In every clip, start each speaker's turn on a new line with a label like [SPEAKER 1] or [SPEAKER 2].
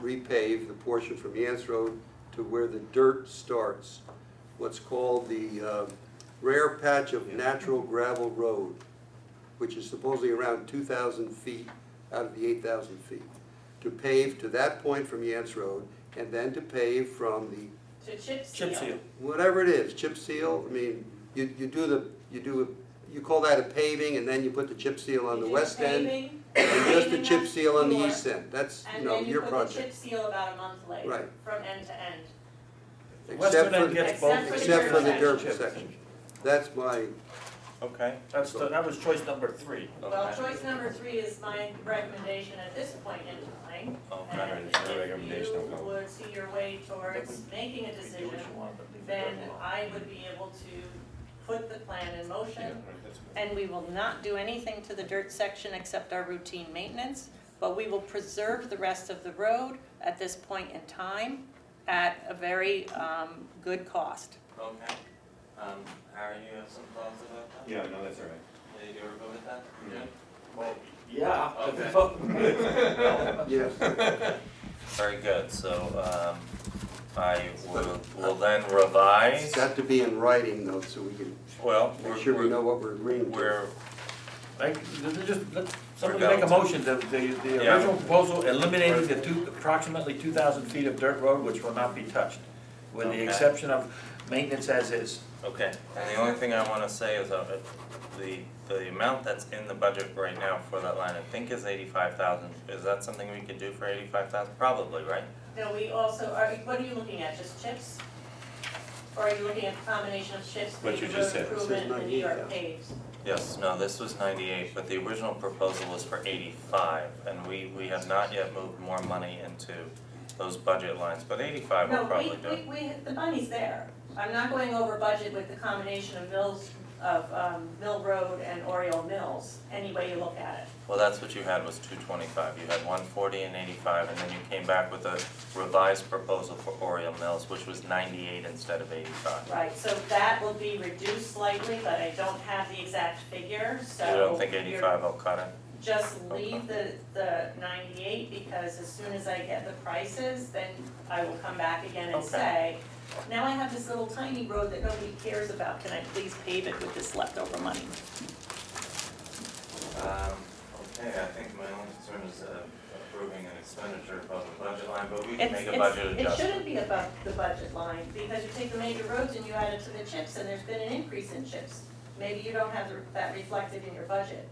[SPEAKER 1] repave the portion from Yance Road to where the dirt starts, what's called the uh, rare patch of natural gravel road, which is supposedly around 2,000 feet out of the 8,000 feet, to pave to that point from Yance Road, and then to pave from the
[SPEAKER 2] To chip seal.
[SPEAKER 3] Chip seal.
[SPEAKER 1] whatever it is, chip seal, I mean, you, you do the, you do, you call that a paving, and then you put the chip seal on the west end, and just the chip seal on the east end, that's, you
[SPEAKER 2] And
[SPEAKER 1] know,
[SPEAKER 2] then you
[SPEAKER 1] your
[SPEAKER 2] put the chip
[SPEAKER 1] project.
[SPEAKER 2] seal about a month later.
[SPEAKER 1] Right.
[SPEAKER 2] From end to end.
[SPEAKER 3] The
[SPEAKER 1] Except
[SPEAKER 3] Western
[SPEAKER 1] for,
[SPEAKER 3] end gets both.
[SPEAKER 2] except
[SPEAKER 1] except for the
[SPEAKER 2] dirt
[SPEAKER 1] derp section, that's my,
[SPEAKER 3] Okay, that's, the- that was choice number three.
[SPEAKER 2] Well, choice number three is my recommendation at this point in time. And
[SPEAKER 4] it's your
[SPEAKER 2] if
[SPEAKER 4] recommendation,
[SPEAKER 2] you
[SPEAKER 4] I'll go.
[SPEAKER 2] would see your way towards making a
[SPEAKER 3] We do
[SPEAKER 2] decision,
[SPEAKER 3] what you want, but leave the
[SPEAKER 2] then
[SPEAKER 3] dirt alone.
[SPEAKER 2] I would be able to put the plan in motion. And we will not do anything to the dirt section except our routine maintenance, but we will preserve the rest of the road at this point in time at a very um, good cost.
[SPEAKER 3] Okay, um, Harry, you have some thoughts about that?
[SPEAKER 4] Yeah, no, that's all
[SPEAKER 3] Yeah, you ever go with that?
[SPEAKER 4] Yeah.
[SPEAKER 3] Well,
[SPEAKER 5] Yeah.
[SPEAKER 3] Okay.
[SPEAKER 5] Well,
[SPEAKER 1] yes.
[SPEAKER 3] Very good, so, um, I will, will then revise,
[SPEAKER 1] It's got to be in writing though, so we can
[SPEAKER 3] well, we're,
[SPEAKER 1] make sure we
[SPEAKER 3] we're-
[SPEAKER 1] know what we're agreeing to.
[SPEAKER 3] we're,
[SPEAKER 5] Like, th- th- just, let, somebody
[SPEAKER 3] We're
[SPEAKER 5] make a
[SPEAKER 3] going
[SPEAKER 5] motion, the, the, the
[SPEAKER 3] Yeah.
[SPEAKER 5] original proposal eliminating the two, approximately two thousand feet of dirt road which will not be touched, with the
[SPEAKER 3] Okay.
[SPEAKER 5] exception of maintenance as is.
[SPEAKER 3] Okay, and the only thing I wanna say is, uh, the, the amount that's in the budget right now for that line, I think is eighty-five thousand, is that something we could do for eighty-five thousand? Probably, right?
[SPEAKER 2] No, we also, are, what are you looking at, just chips? Or are you looking at a combination of chips,
[SPEAKER 4] What you
[SPEAKER 2] paved road
[SPEAKER 4] just said.
[SPEAKER 2] improvement, and New
[SPEAKER 1] This is
[SPEAKER 2] York
[SPEAKER 1] not
[SPEAKER 2] paves?
[SPEAKER 3] Yes, no, this was ninety-eight, but the original proposal was for eighty-five, and we, we have not yet moved more money into those budget lines, but eighty-five will probably do.
[SPEAKER 2] No, we, we, we, the money's there. I'm not going over budget with the combination of Mills, of, um, Mill Road and Oriole Mills, any way you look at it.
[SPEAKER 3] Well, that's what you had was two twenty-five, you had one forty and eighty-five, and then you came back with a revised proposal for Oriole Mills, which was ninety-eight instead of eighty-five.
[SPEAKER 2] Right, so that will be reduced slightly, but I don't have the exact figure, so.
[SPEAKER 3] You don't think
[SPEAKER 2] you're-
[SPEAKER 3] eighty-five will cut it?
[SPEAKER 2] Just leave the, the ninety-eight, because as soon as I get the prices, then I will come back again and
[SPEAKER 3] Okay.
[SPEAKER 2] say, now I have this little tiny road that nobody cares about, can I please pave it with this leftover money?
[SPEAKER 3] Um, okay, I think my only concern is uh, approving an expenditure above the budget line, but we can
[SPEAKER 2] It's-
[SPEAKER 3] make a
[SPEAKER 2] it's-
[SPEAKER 3] budget
[SPEAKER 2] It shouldn't
[SPEAKER 3] adjustment.
[SPEAKER 2] be above the budget line, because you take the major roads and you add it to the chips, and there's been an increase in chips. Maybe you don't have the- that reflected in your budget.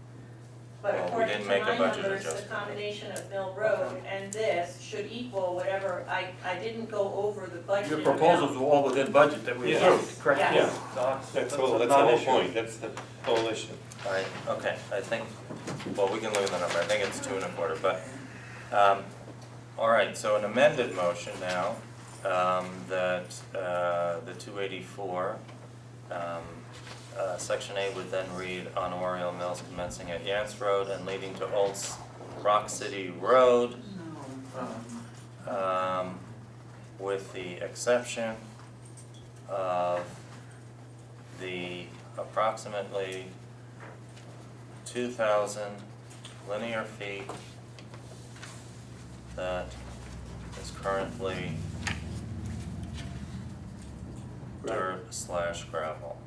[SPEAKER 2] But
[SPEAKER 3] Well, we
[SPEAKER 2] according
[SPEAKER 3] didn't
[SPEAKER 2] to
[SPEAKER 3] make a
[SPEAKER 2] my
[SPEAKER 3] budget
[SPEAKER 2] numbers, the
[SPEAKER 3] adjustment.
[SPEAKER 2] combination of Mill Road and this should equal whatever, I, I didn't go over the budget
[SPEAKER 5] Your
[SPEAKER 2] amount.
[SPEAKER 5] proposals were all within budget that we
[SPEAKER 4] Yeah.
[SPEAKER 5] approved, correct?
[SPEAKER 2] Yes.
[SPEAKER 4] Yeah.
[SPEAKER 5] No,
[SPEAKER 4] That's
[SPEAKER 5] a
[SPEAKER 4] all, that's the whole
[SPEAKER 5] non-issue.
[SPEAKER 4] point, that's the whole issue.
[SPEAKER 3] Right, okay, I think, well, we can look at the number, I think it's two and a quarter, but, um, all right, so an amended motion now, um, that, uh, the two eighty-four, um, uh, section A would then read on Oriole Mills commencing at Yance Road and leading to Old S- Rock City Road,
[SPEAKER 5] Um,
[SPEAKER 3] um, with the exception of the approximately two thousand linear feet that is currently
[SPEAKER 1] Right.
[SPEAKER 3] dirt slash gravel.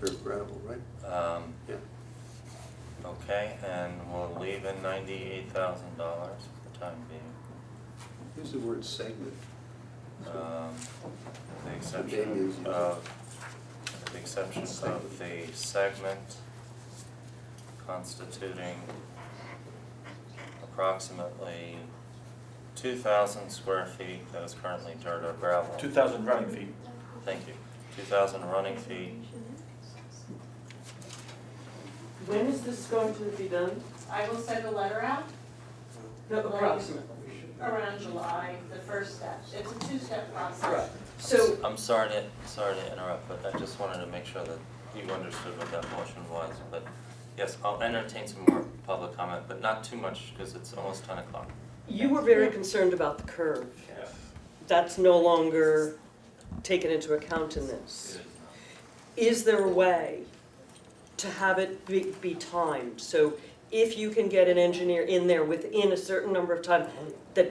[SPEAKER 1] Dirt gravel, right?
[SPEAKER 3] Um,
[SPEAKER 1] Yeah.
[SPEAKER 3] okay, and we'll leave in ninety-eight thousand dollars for the time being,
[SPEAKER 1] Use the word segment.
[SPEAKER 3] um, with the
[SPEAKER 1] Okay, use
[SPEAKER 3] exception
[SPEAKER 1] it.
[SPEAKER 3] of, with the exception of the segment constituting approximately two thousand square feet that is currently dirt or gravel.
[SPEAKER 5] Two thousand running feet.
[SPEAKER 3] Thank you, two thousand running feet,
[SPEAKER 6] When is this going to be done?
[SPEAKER 2] I will send a letter out
[SPEAKER 6] No,
[SPEAKER 2] Like-
[SPEAKER 6] approximately.
[SPEAKER 2] around July, the first step. It's a two-step process.
[SPEAKER 6] Right. So,
[SPEAKER 3] I'm sorry to, sorry to interrupt, but I just wanted to make sure that you understood what that motion was, but yes, I'll entertain some more public comment, but not too much, because it's almost ten o'clock.
[SPEAKER 6] you were very concerned about the curve.
[SPEAKER 3] Yes.
[SPEAKER 6] That's no longer taken into account in this. Is there a way to have it be, be timed? So if you can get an engineer in there within a certain number of time, that